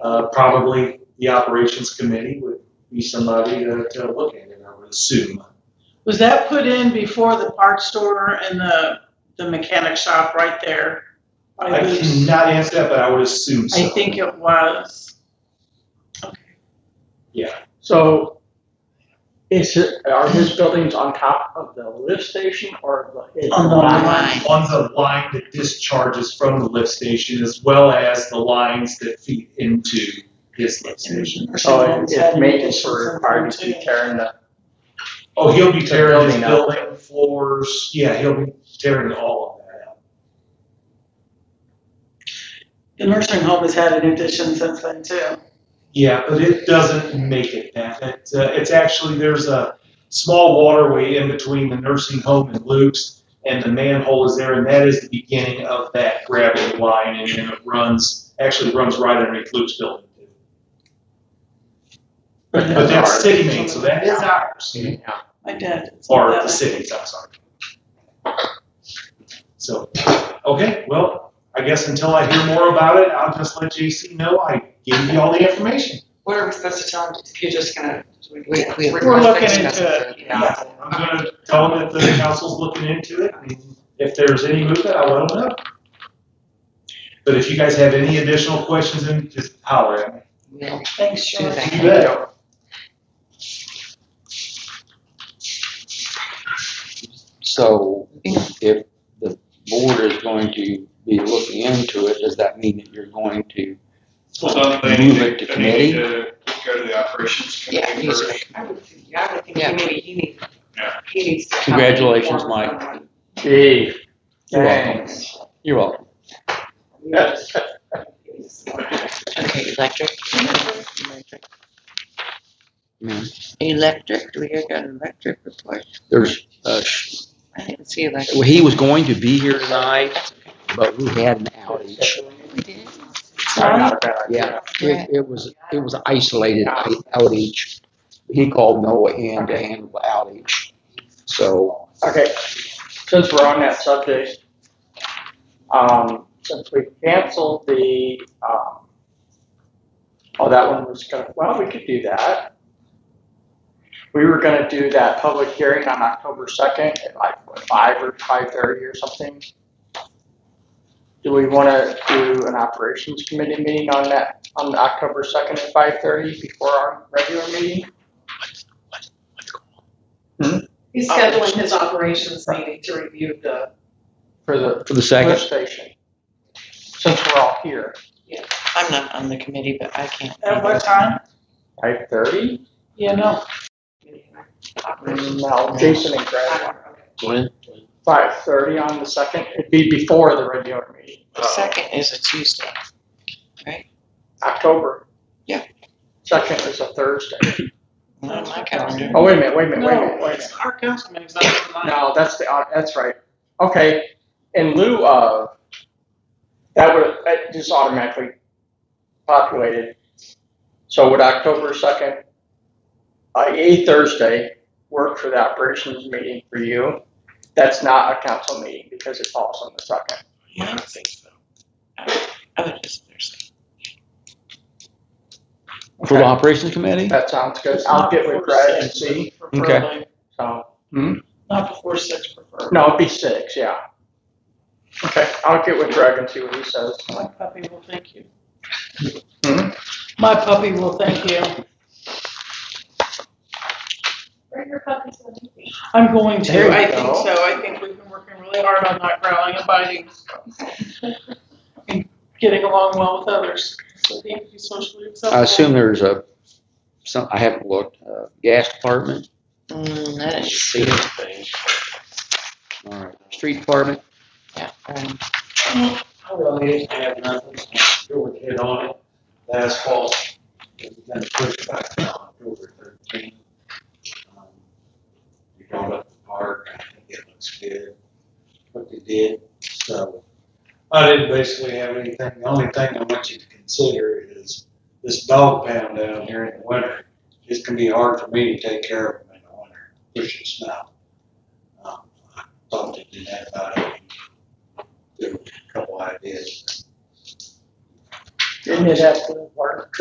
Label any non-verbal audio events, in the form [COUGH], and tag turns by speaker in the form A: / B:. A: Uh, probably the operations committee would be somebody to, to look at it, I would assume.
B: Was that put in before the parts store and the, the mechanic shop right there?
A: I
B: By these?
A: cannot answer that, but I would assume so.
B: I think it was.
C: So is it, are his buildings on top of the lift station or the?
B: On the line.
A: On the line that discharges from the lift station as well as the lines that feed into his lift station.
C: So it- Oh, it's making for parties to be tearing the,
A: Oh, he'll be tearing his
C: Building up.
A: building floors, yeah, he'll be tearing all of that out.
B: The nursing home has had an addition since then too.
A: Yeah, but it doesn't make it that. It's, uh, it's actually, there's a small waterway in between the nursing home and Luke's, and the manhole is there, and that is the beginning of that gravel line, and then it runs, actually runs right underneath Luke's building. But
C: But
A: that's
C: that's
A: city main, so that is ours,
C: yeah.
B: My dad. did
A: or
B: that.
A: the city's, I'm sorry. So, okay, well, I guess until I hear more about it, I'll just let JC know I gave you all the information.
D: What are we supposed to tell him if you're just gonna?
E: We, we.
A: We're looking into
E: it.
A: Yeah, I'm gonna tell them that the council's looking into it, and if there's any movement, I'll let them know. But if you guys have any additional questions, then just holler at me.
E: We'll
B: Thanks,
E: do
B: George.
E: that.
A: You bet.
F: So if the board is going to be looking into it, does that mean that you're going to?
G: Well, don't they
F: Move
G: need
F: it to
G: to, they need to go to the operations
E: Yeah,
G: committee
E: you
G: first?
E: should.
D: I would, think- yeah, I would think
E: Yeah.
D: he needs, he needs,
G: Yeah.
D: he needs to. come
F: Congratulations,
D: forward
F: Mike.
D: someone.
C: Gee,
F: You're welcome.
C: thanks.
F: You're welcome.
D: Yes.
E: Okay, electric. Electric. Electric, do we hear got an electric report?
F: There's, uh, sh-
E: I didn't see
F: well,
E: electric.
F: he was going to be here tonight, but we had an outage.
E: We did.
C: Sorry, not a bad idea.
F: Yeah, it, it was, it was an isolated i- outage. He called Noah in to handle the outage. So,
C: Okay, since we're on that subject, um, since we canceled the, um, oh, that one was gonna, well, we could do that. We were gonna do that public hearing on October second at like what, five or five thirty or something. Do we wanna do an operations committee meeting on that, on October second at five thirty before our regular meeting?
D: He's
E: Oh.
D: scheduling his operations meeting to review the,
C: For the
F: for the
C: lift
F: second,
C: station. Since we're all here.
E: I'm not on the committee, but I can't.
B: At what time?
C: Five thirty?
B: Yeah, no.
D: operations.
C: No, Jason and Greg. Five thirty on the second, it'd be before the regular meeting,
E: The second is a Tuesday.
C: October.
E: Yeah.
C: Second is a Thursday.
E: Not on my calendar.
C: Oh, wait a minute, wait a minute, wait a
B: No,
C: minute, wait a minute.
B: it's our council meeting's not tonight.
C: No, that's the, uh, that's right. Okay, in lieu of, that would, that just automatically populated. So would October second, uh, a Thursday, work for the operations meeting for you? That's not a council meeting because it falls on the second.
E: I don't think so. Oh, it is Thursday.
F: for the
C: Okay.
F: operations committee?
C: That sounds good. I'll get with Brad and see.
B: Preferably,
C: So,
B: Not before six preferably.
C: no, it'd be six, yeah. Okay, I'll get with Greg and see what he says.
B: My puppy will thank you.
C: Hmm?
B: My puppy will thank you.
H: Bring your puppies with you.
B: I'm going to.
C: There you
B: I think
C: go.
B: so. I think we've been working really hard on not growling and biting.
H: [LAUGHS]
B: And getting along well with others. So they have to be socially acceptable.
F: I assume there's a, some, I haven't looked, uh, gas department?
E: Mm, I didn't see
F: See
E: it.
F: anything. All right, street department,
E: Yeah, um,
A: I really have nothing, go with head on it, last fall, it was kind of pushed back down October thirteen. Um, We brought up the park, I think it looks good, what they did, so. I didn't basically have anything, the only thing I want you to consider is this dog pound down here in the winter. It's gonna be hard for me to take care of them in the winter, pushing snow. Um, I Thought they did that about it, there were a couple ideas.
E: Didn't it have to work?